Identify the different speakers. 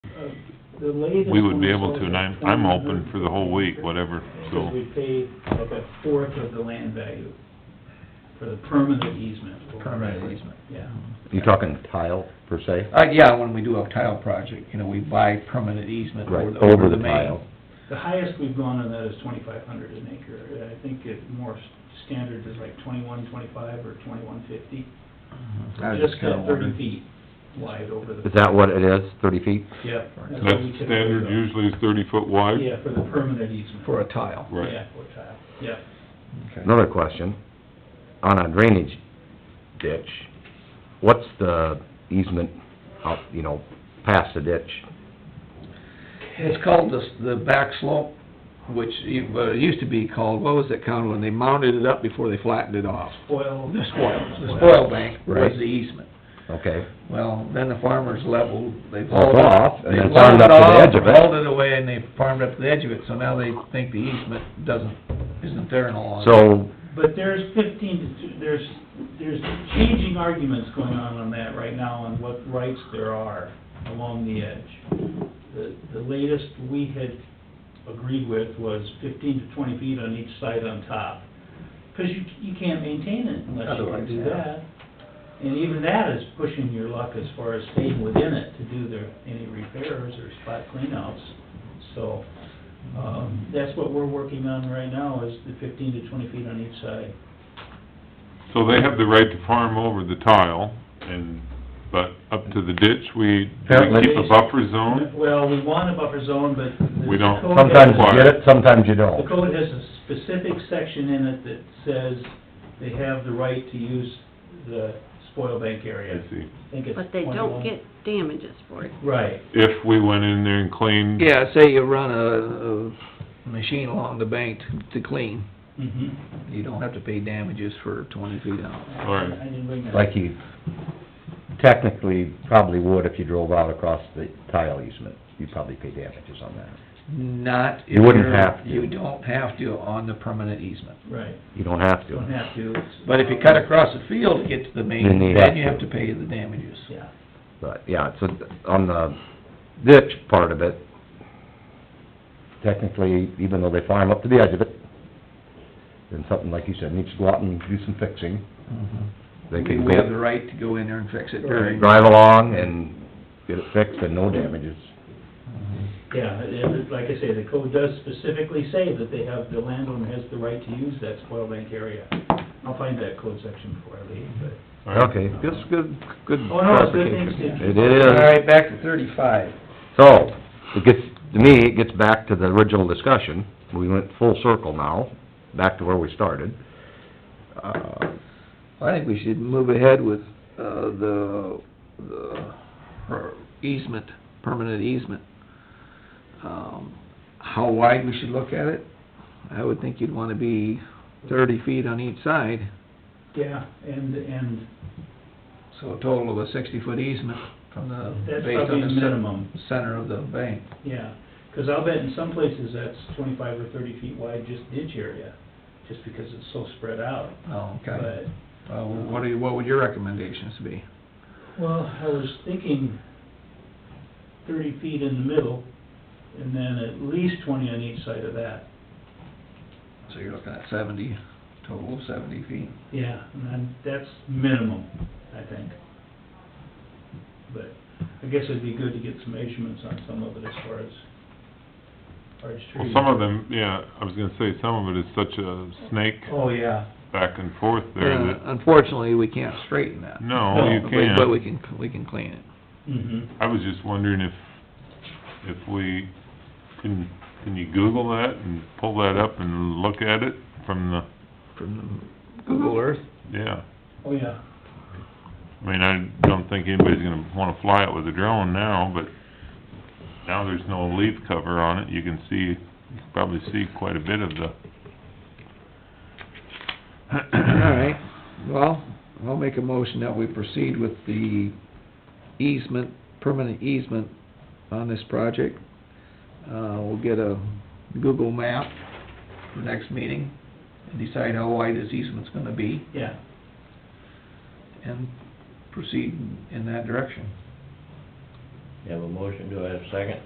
Speaker 1: the latest.
Speaker 2: We would be
Speaker 1: one
Speaker 2: able
Speaker 1: was
Speaker 2: to, and I'm,
Speaker 1: at
Speaker 2: I'm
Speaker 1: 400.
Speaker 2: open for the whole week, whatever, so.
Speaker 1: Because we pay like a fourth of the land value for the permanent easement.
Speaker 3: Permanent easement.
Speaker 1: Yeah.
Speaker 4: You talking tile per se?
Speaker 3: Uh, yeah, when we do a tile project, you know, we buy permanent easement over
Speaker 4: Right,
Speaker 3: the,
Speaker 4: over the
Speaker 3: main.
Speaker 4: tile.
Speaker 1: The highest we've gone on that is twenty-five hundred an acre. I think it more s- standard is like twenty-one, twenty-five, or twenty-one fifty.
Speaker 3: I was
Speaker 1: Just
Speaker 3: kinda
Speaker 1: got
Speaker 3: wondering.
Speaker 1: thirty feet wide over the.
Speaker 4: Is that what it is, thirty feet?
Speaker 1: Yep.
Speaker 2: That's
Speaker 1: what we typically
Speaker 2: standard,
Speaker 1: go.
Speaker 2: usually is thirty foot wide?
Speaker 1: Yeah, for the permanent easement.
Speaker 3: For a tile.
Speaker 2: Right.
Speaker 1: Yeah, for tile, yeah.
Speaker 4: Another question, on a drainage ditch, what's the easement out, you know, past the ditch?
Speaker 3: It's called the, s- the back slope, which, you- well, it used to be called, what was it called, when they mounted it up before they flattened it off?
Speaker 1: Spoil.
Speaker 3: The spoil, the spoil bank was
Speaker 4: Right.
Speaker 3: the easement.
Speaker 4: Okay,
Speaker 3: Well, then the farmers leveled, they
Speaker 4: Well,
Speaker 3: hauled
Speaker 4: it's
Speaker 3: it.
Speaker 4: off, and
Speaker 3: they
Speaker 4: it's farmed
Speaker 3: leveled
Speaker 4: up to the
Speaker 3: off,
Speaker 4: edge of it.
Speaker 3: Hauled it away and they farmed up to the edge of it, so now they think the easement doesn't, isn't there in all.
Speaker 4: so,
Speaker 1: But there's fifteen, to two- there's, there's changing arguments going on on that right now on what rights there are along the edge. The, the latest we had agreed with was fifteen to twenty feet on each side on top. Cause you, you can't maintain it unless you can
Speaker 3: Otherwise,
Speaker 1: do
Speaker 3: yeah.
Speaker 1: that. And even that is pushing your luck as far as staying within it to do the, any repairs or spot cleanouts. So, um, that's what we're working on right now, is the fifteen to twenty feet on each side.
Speaker 2: So they have the right to farm over the tile, and, but up to the ditch, we, do we
Speaker 4: Apparently-
Speaker 2: keep a buffer zone?
Speaker 1: Well, we want a buffer zone, but the
Speaker 2: We don't.
Speaker 1: code has-
Speaker 4: sometimes you get it, sometimes you
Speaker 1: The
Speaker 4: don't.
Speaker 1: code has a specific section in it that says they have the right to use the spoil bank
Speaker 2: I
Speaker 1: area.
Speaker 2: see.
Speaker 1: I think it's
Speaker 5: But they don't
Speaker 1: 21.
Speaker 5: get damages for it.
Speaker 1: Right,
Speaker 2: If we went in there and cleaned,
Speaker 3: Yeah, say you run a, a machine along the bank to clean,
Speaker 1: mhm.
Speaker 3: you don't have to pay damages for twenty feet out.
Speaker 2: All right.
Speaker 1: I didn't bring that.
Speaker 4: Like you technically probably would if you drove out across the tile easement, you'd probably pay damages on that.
Speaker 3: Not if
Speaker 4: You wouldn't
Speaker 3: you're-
Speaker 4: have to.
Speaker 3: You don't have to on the permanent easement.
Speaker 1: Right,
Speaker 4: You don't have
Speaker 1: don't
Speaker 4: to.
Speaker 1: have to. it's-
Speaker 3: But if you cut across the field to get to the
Speaker 4: Then you
Speaker 3: main, then you
Speaker 4: have
Speaker 3: have to pay the damages.
Speaker 1: Yeah,
Speaker 4: But, yeah, so on the ditch part of it, technically, even though they farm up to the edge of it, then something like you said, needs to go out and do some fixing, Mm-hmm. they
Speaker 3: We
Speaker 4: can
Speaker 3: we have the
Speaker 4: go
Speaker 3: right to go in there and fix it during.
Speaker 4: drive along and get it fixed and no damages.
Speaker 1: yeah, and it- like I say, the code does specifically say that they have, the landowner has the right to use that spoil bank area. I'll find that code section before I leave, but.
Speaker 2: all right,
Speaker 4: Okay, just good, good
Speaker 1: Oh, no, it's good things
Speaker 4: clarification.
Speaker 1: to-
Speaker 4: It
Speaker 3: All
Speaker 4: is.
Speaker 3: right, back to thirty-five.
Speaker 4: So, it gets, to me, it gets back to the original discussion. We went full circle now, back to where we started. Uh,
Speaker 3: I think we should move ahead with, uh, the, the per- easement, permanent easement. Um, how wide we should look at it? I would think you'd wanna be thirty feet on each side,
Speaker 1: Yeah, and, and
Speaker 3: so a total of a sixty-foot easement from the,
Speaker 1: That's
Speaker 3: based on
Speaker 1: probably
Speaker 3: the
Speaker 1: the minimum.
Speaker 3: cen- center of the bank.
Speaker 1: Yeah, 'cause I'll bet in some places that's twenty-five or thirty feet wide, just ditch area, just because it's so spread out.
Speaker 3: Oh, okay.
Speaker 1: But,
Speaker 3: Well, what are, you- what would your recommendations be?
Speaker 1: well, I was thinking thirty feet in the middle, and then at least twenty on each side of that.
Speaker 3: So you're looking at seventy, total of seventy feet.
Speaker 1: Yeah, and then that's minimum, I think. But I guess it'd be good to get some measurements on some of it as far as large
Speaker 2: well,
Speaker 1: trees.
Speaker 2: some of them, yeah, I was gonna say, some of it is such a snake
Speaker 1: Oh, yeah.
Speaker 2: back and forth there
Speaker 3: Yeah,
Speaker 2: that,
Speaker 3: Unfortunately, we can't straighten that.
Speaker 2: no, you
Speaker 1: No,
Speaker 2: can't.
Speaker 3: But we can, we can clean it.
Speaker 1: Mm-hmm.
Speaker 2: I was just wondering if, if we, can, can you Google that and pull that up and look at it from the,
Speaker 3: from Google Earth.
Speaker 2: yeah.
Speaker 1: Oh, yeah.
Speaker 2: I mean, I don't think anybody's gonna wanna fly it with a drone now, but now there's no leaf cover on it, you can see, you can probably see quite a bit of the...
Speaker 3: All right, well, I'll make a motion that we proceed with the easement, permanent easement on this project. Uh, we'll get a Google map for next meeting and decide how wide this easement's gonna be
Speaker 1: Yeah,
Speaker 3: and proceed in that direction.
Speaker 1: You have a motion, do I have a second?